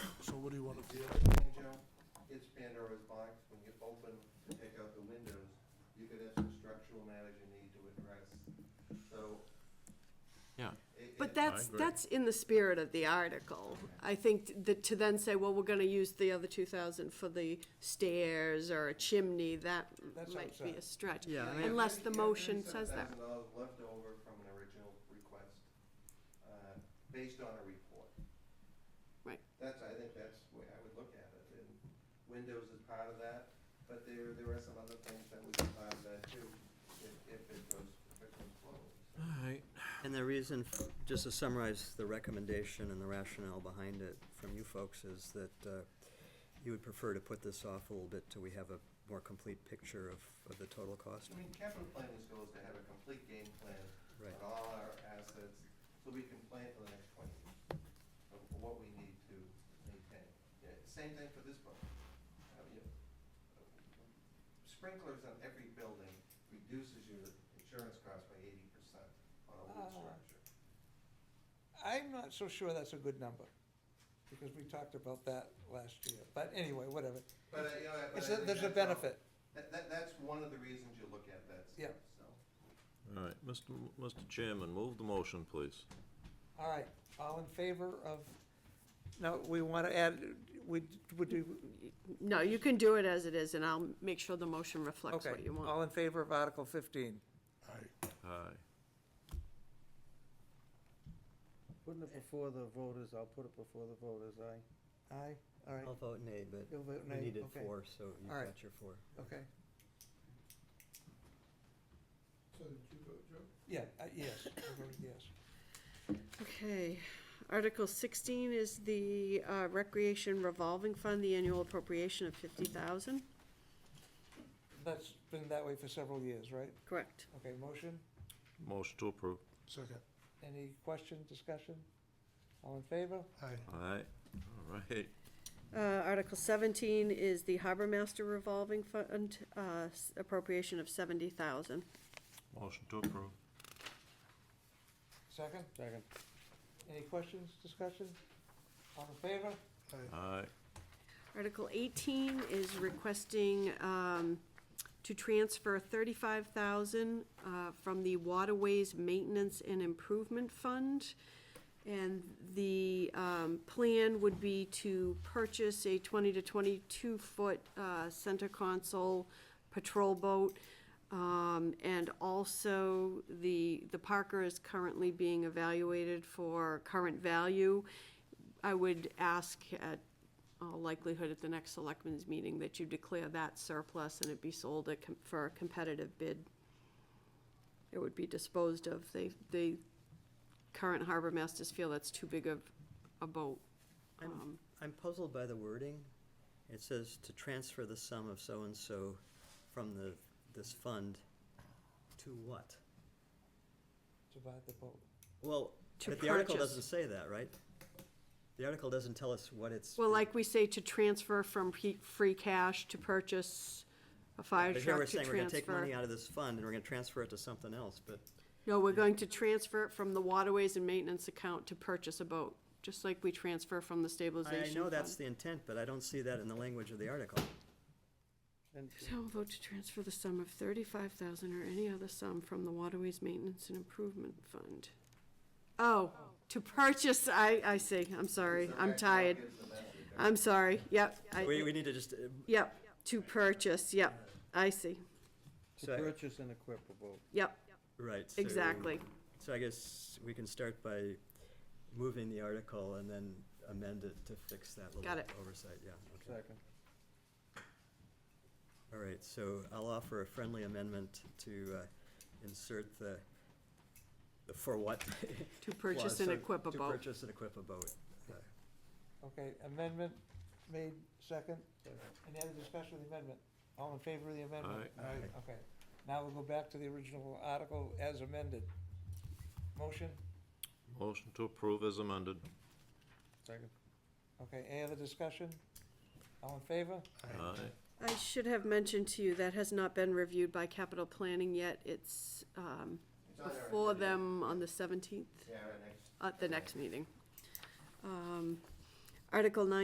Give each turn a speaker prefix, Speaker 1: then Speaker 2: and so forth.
Speaker 1: What do you want to do?
Speaker 2: Banjo, it's Pandora's box, when you open to take out the windows, you could have some structural matters you need to address, so.
Speaker 3: Yeah.
Speaker 2: it-
Speaker 4: But
Speaker 2: it-
Speaker 4: that's,
Speaker 3: agree.
Speaker 4: that's in the spirit of the article. I think that to then say, well, we're gonna use the other two thousand for the stairs or a chimney, that
Speaker 1: That's
Speaker 4: might be a
Speaker 1: outside.
Speaker 4: stretch.
Speaker 3: Yeah, I mean-
Speaker 4: Unless the
Speaker 2: You have
Speaker 4: motion says that.
Speaker 2: $37,000 left over from an original request, uh, based on a report.
Speaker 4: Right.
Speaker 2: That's, I think that's the way I would look at it, and windows is part of that, but there, there are some other things that would be part of that too, if, if it goes, if it goes forward.
Speaker 5: And the reason, f- just to summarize the recommendation and the rationale behind it from you folks is that uh, you would prefer to put this off a little bit till we have a more complete picture of, of the total cost?
Speaker 2: I mean, capital planning is goals to have a complete game plan
Speaker 5: Right.
Speaker 2: on all our assets, so we can plan for the next twenty years of what we need to maintain. Yeah, Same thing for this book. I mean, Sprinklers on every building reduces your insurance cost by eighty percent on a
Speaker 1: Ah.
Speaker 2: wood structure.
Speaker 1: I'm not so sure that's a good number, because we talked about that last year. But anyway, whatever.
Speaker 2: But, uh, you know, but I
Speaker 1: It's a-
Speaker 2: think
Speaker 1: There's a
Speaker 2: that's all-
Speaker 1: benefit.
Speaker 2: That, that, that's one of the reasons you look at that
Speaker 1: Yeah.
Speaker 2: stuff, so.
Speaker 3: All right, Mr. M- Mr. Chairman, move the motion, please.
Speaker 1: All right, all in favor of, no, we want to add, would, would do,
Speaker 4: No, you can do it as it is, and I'll make sure the motion reflects what
Speaker 1: okay.
Speaker 4: you want.
Speaker 1: All in favor of Article 15?
Speaker 3: Aye.
Speaker 6: Putting it before the voters, I'll put it before the voters, aye.
Speaker 1: Aye, all
Speaker 5: I'll
Speaker 1: right,
Speaker 5: vote nay, but
Speaker 1: You'll
Speaker 5: Oh, we
Speaker 1: vote nay,
Speaker 5: needed
Speaker 1: okay.
Speaker 5: four, so you've
Speaker 1: All right.
Speaker 5: got your four.
Speaker 1: okay.
Speaker 7: So did you vote, Joe?
Speaker 1: Yeah, uh, yes, I voted yes.
Speaker 4: Okay, Article sixteen is the uh, Recreation Revolving Fund, the annual appropriation of fifty thousand.
Speaker 1: That's been that way for several years, right?
Speaker 4: Correct.
Speaker 1: Okay, motion?
Speaker 3: Motion to approve.
Speaker 7: Second.
Speaker 1: Any question, discussion? All in favor?
Speaker 7: Aye.
Speaker 3: Aye. All right.
Speaker 4: Uh, Article 17 is the Harbor Master Revolving Fund uh, s- appropriation of 70,000.
Speaker 3: Motion to approve.
Speaker 1: Second?
Speaker 6: Second.
Speaker 1: Any questions, discussion? All in favor?
Speaker 7: Aye.
Speaker 3: Aye.
Speaker 4: Article 18 is requesting um, to transfer 35,000 uh, from the Waterways Maintenance and Improvement Fund. And the um, plan would be to purchase a 20 to 22-foot center console patrol boat. Um, And also, the, the Parker is currently being evaluated for current value. I would ask at all uh, likelihood at the next selectmen's meeting that you declare that surplus and it be sold at com- for a competitive bid. It would be disposed of. They, they, current harbor masters feel that's too big of a boat. Um,
Speaker 5: I'm, I'm puzzled by the wording. It says to transfer the sum of so-and-so from the, this fund to what?
Speaker 1: To buy the vote.
Speaker 5: Well,
Speaker 4: To
Speaker 5: but the article
Speaker 4: purchase.
Speaker 5: doesn't say that, right? The article doesn't tell us what it's.
Speaker 4: Well, like we say, to transfer from pe- free cash to purchase a fire
Speaker 5: But here we're
Speaker 4: truck to
Speaker 5: saying we're gonna take money
Speaker 4: transfer.
Speaker 5: out of this fund and we're gonna transfer it to something else, but
Speaker 4: No, we're going to transfer it from the waterways and maintenance account to purchase a boat, just like we transfer from the stabilization
Speaker 5: I
Speaker 4: fund.
Speaker 5: know that's the intent, but I don't see that in the language of the article.
Speaker 6: And
Speaker 4: Town vote to transfer the sum of thirty-five thousand or any other sum from the Waterways Maintenance and Improvement Fund. Oh, to purchase, I, I see, I'm sorry,
Speaker 2: So
Speaker 4: I'm
Speaker 2: that
Speaker 4: tired,
Speaker 2: gives the message.
Speaker 4: I'm sorry, yep,
Speaker 5: We, we
Speaker 4: I,
Speaker 5: need to just, uh,
Speaker 4: yep, to purchase, yep, I see,
Speaker 6: to
Speaker 5: So-
Speaker 6: purchase and equip a boat.
Speaker 4: yep,
Speaker 5: right. so-
Speaker 4: exactly.
Speaker 5: So I guess we can start by moving the article and then amend it to fix that
Speaker 4: Got
Speaker 5: little
Speaker 4: it.
Speaker 5: oversight, yeah. okay.
Speaker 6: Second.
Speaker 5: All right, so I'll offer a friendly amendment to uh, insert the, the for what?
Speaker 4: To purchase and
Speaker 5: clause, so
Speaker 4: equip a
Speaker 5: to
Speaker 4: boat.
Speaker 5: purchase and equip a boat. Uh,
Speaker 1: Okay, amendment made second. Any other discussion of the amendment? All in favor of the amendment?
Speaker 3: Aye.
Speaker 5: Aye.
Speaker 1: Okay, now we'll go back to the original article as amended. Motion,
Speaker 3: Motion to approve as amended.
Speaker 6: Second.
Speaker 1: okay, any other discussion? All in favor?
Speaker 3: Aye.
Speaker 4: I should have mentioned to you, that has not been reviewed by capital planning yet, it's, um,
Speaker 2: It's on our
Speaker 4: before
Speaker 2: agenda.
Speaker 4: them on the seventeenth,
Speaker 2: Yeah, our next.
Speaker 4: at the next meeting. Um, Article nine